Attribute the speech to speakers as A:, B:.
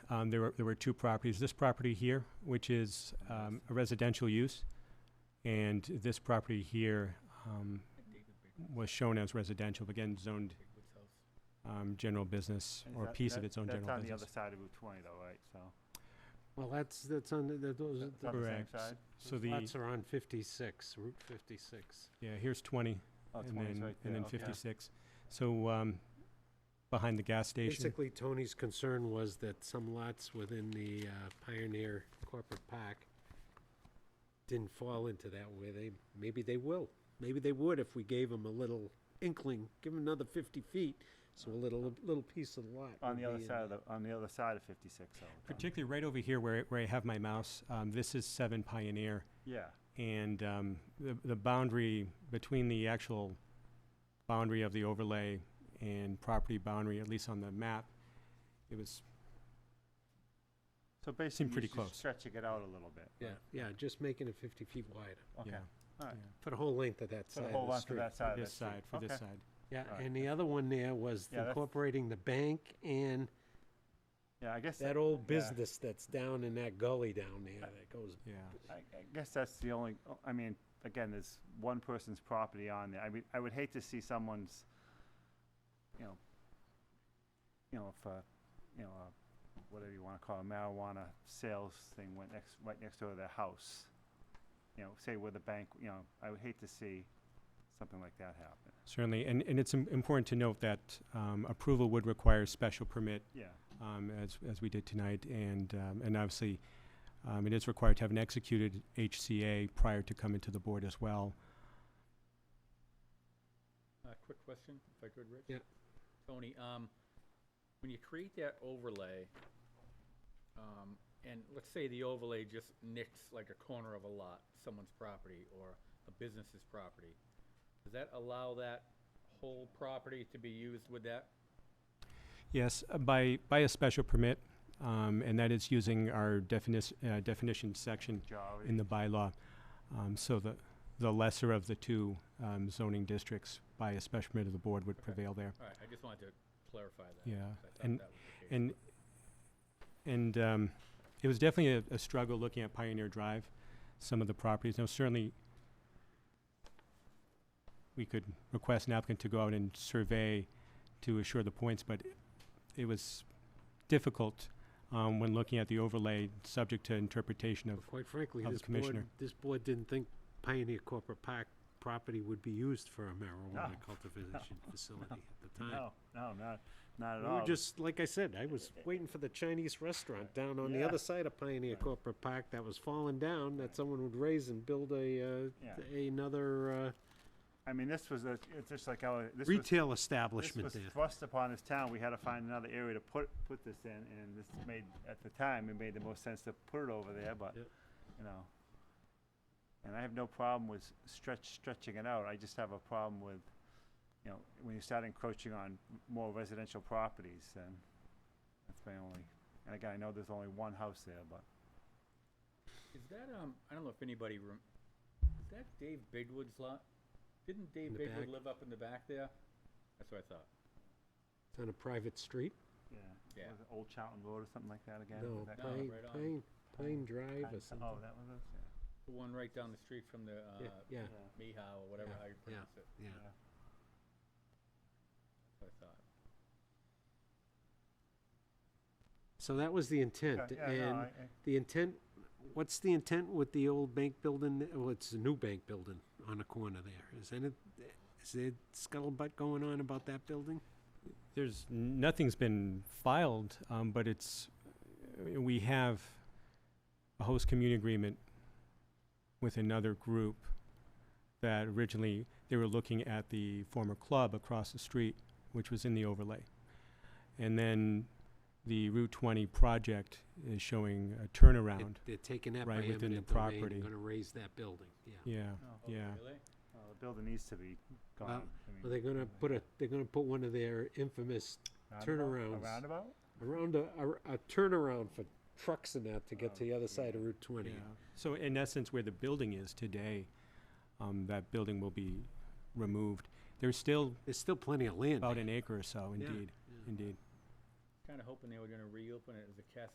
A: Um, there were, there were two properties. This property here, which is, um, a residential use, and this property here, um, was shown as residential, but again, zoned, um, general business,
B: And
A: or a
B: that-
A: piece of
B: that-
A: its own
B: that's
A: general
B: on the other
A: business.
B: side of Route 20 though, right? So
C: Well, that's, that's on, the- that, those,
B: it's on the same
A: Correct.
B: side.
A: So
C: those
A: the,
C: lots are on fifty-six, Route fifty-six.
A: yeah, here's twenty,
B: Oh,
A: and
B: 20 is
A: then,
B: right
A: and
B: there,
A: then
B: okay.
A: fifty-six. So, um, behind the gas station.
C: Basically, Tony's concern was that some lots within the uh, Pioneer Corporate Park didn't fall into that way. They, maybe they will. Maybe they would if we gave them a little inkling, give them another fifty feet, so a little, little piece of the lot.
B: On
C: would
B: the other
C: be in
B: side of
C: there.
B: the, on the other side of 56 though. Tom.
A: Particularly right over here where, where I have my mouse, um, this is seven Pioneer,
B: Yeah,
A: and, um, the, the boundary between the actual boundary of the overlay and property boundary, at least on the map, it was,
B: so basically
A: pretty
B: you're just
A: close.
B: stretching it out a little bit.
C: Yeah, yeah, just making it fifty feet wider,
B: Okay,
A: yeah.
B: all right.
A: yeah.
C: for the whole length of that
B: For
C: side
B: the
C: of
B: whole
C: the
B: lot for
C: street.
B: that side
A: For
B: of the
A: this
B: street.
A: side, for this
B: Okay.
A: side.
C: Yeah,
B: Right.
C: and the other one there was
B: Yeah, that's-
C: incorporating the bank and
B: Yeah, I guess,
C: that old
B: yeah.
C: business that's down in that gully down there that goes
A: Yeah,
B: I I guess that's the only, oh, I mean, again, there's one person's property on there. I mean, I would hate to see someone's, you know, you know, if, uh, you know, uh, whatever you wanna call a marijuana sales thing went next, right next door to their house. You know, say with a bank, you know, I would hate to see something like that happen.
A: certainly. And, and it's im- important to note that, um, approval would require special permit,
B: Yeah,
A: um, as, as we did tonight. And, um, and obviously, um, it is required to have an executed HCA prior to coming to the board as well.
D: A quick question, if I could, Rich?
C: Yeah.
D: Tony, um, when you create that overlay, um, and let's say the overlay just nicks like a corner of a lot, someone's property or a business's property, does that allow that whole property to be used with that?
A: Yes, uh, by, by a special permit, um, and that is using our definition, uh, definition section
B: Jarvis.
A: in the bylaw. Um, so the, the lesser of the two, um, zoning districts by a special permit of the board would
D: Okay.
A: prevail there.
D: All right, I just wanted to clarify that.
A: Yeah,
D: 'cause I thought
A: and-
D: that was the case,
A: And,
D: but-
A: and, um, it was definitely a, a struggle looking at Pioneer Drive, some of the properties. Now certainly, we could request an applicant to go out and survey to assure the points, but it was difficult, um, when looking at the overlay, subject to interpretation of
C: But Quite frankly,
A: of the
C: this board,
A: commissioner.
C: this board didn't think Pioneer Corporate Park property would be used for a marijuana
B: No,
C: cultivation facility at the time.
B: No, no, not, not at
C: We were
B: all.
C: just, like I said, I was waiting for the Chinese restaurant down on the
B: Yeah.
C: other side of Pioneer Corporate Park that was falling down, that someone would raise and build a,
B: Yeah.
C: uh, another, uh,
B: I mean, this was a, it's just like our, this was
C: retail
B: This
C: establishment
B: was
C: there.
B: thrust upon this town, we had to find another area to put, put this in, and this made, at the time, it made the most sense to put it over there, but,
C: Yep.
B: you know. And I have no problem with s- stretch, stretching it out, I just have a problem with, you know, when you start encroaching on m- more residential properties, then that's my only, and again, I know there's only one house there, but,
D: Is that, um, I don't know if anybody, rem- is that Dave Bigwood's lot? Didn't Dave
C: the back?
D: Bigwood live up in the back there? That's what I thought.
C: It's on a private street?
B: yeah.
D: Yeah.
B: Was it Old Charlton Road or something like that again?
C: No,
B: Was that-
D: No,
C: Pine,
D: right on.
C: Pine, Pine Drive
B: Oh,
C: or something.
B: that was it,
D: The one right down the street from the,
C: Yeah,
D: uh,
C: yeah,
B: yeah.
D: Mihao, or whatever,
C: Yeah,
D: how you
C: yeah.
D: pronounce it,
C: yeah.
B: Yeah.
D: I thought.
C: So that was the intent,
B: Okay, yeah, no,
C: and
B: I- I-
C: the intent, what's the intent with the old bank building, th- well, it's a new bank building on the corner there, is any, is there scuttlebutt going on about that building?
A: There's, nothing's been filed, um, but it's, uh, we have a host community agreement with another group that originally, they were looking at the former club across the street, which was in the overlay. And then the Route twenty project is showing a
C: They're-
A: turnaround.
C: They're taking that by
A: right within the
C: eminent domain,
A: property.
C: and gonna raise that building, yeah.
A: Yeah,
B: no,
D: Oh,
A: Yeah.
D: Really?
B: well, the building needs to be gone. I mean,
C: Well, they're gonna put a, they're gonna put one of their infamous
B: roundabout-
C: turnarounds.
B: A roundabout?
C: around a, a, a turnaround for trucks and that to get to the other side of Route
A: yeah.
C: twenty.
A: So in essence, where the building is today, um, that building will be removed. There's still
C: There's still plenty of land.
A: about an acre or so,
C: Yeah,
A: indeed,
C: yeah.
A: indeed.
D: Kinda hoping they were gonna reopen it as a Cafe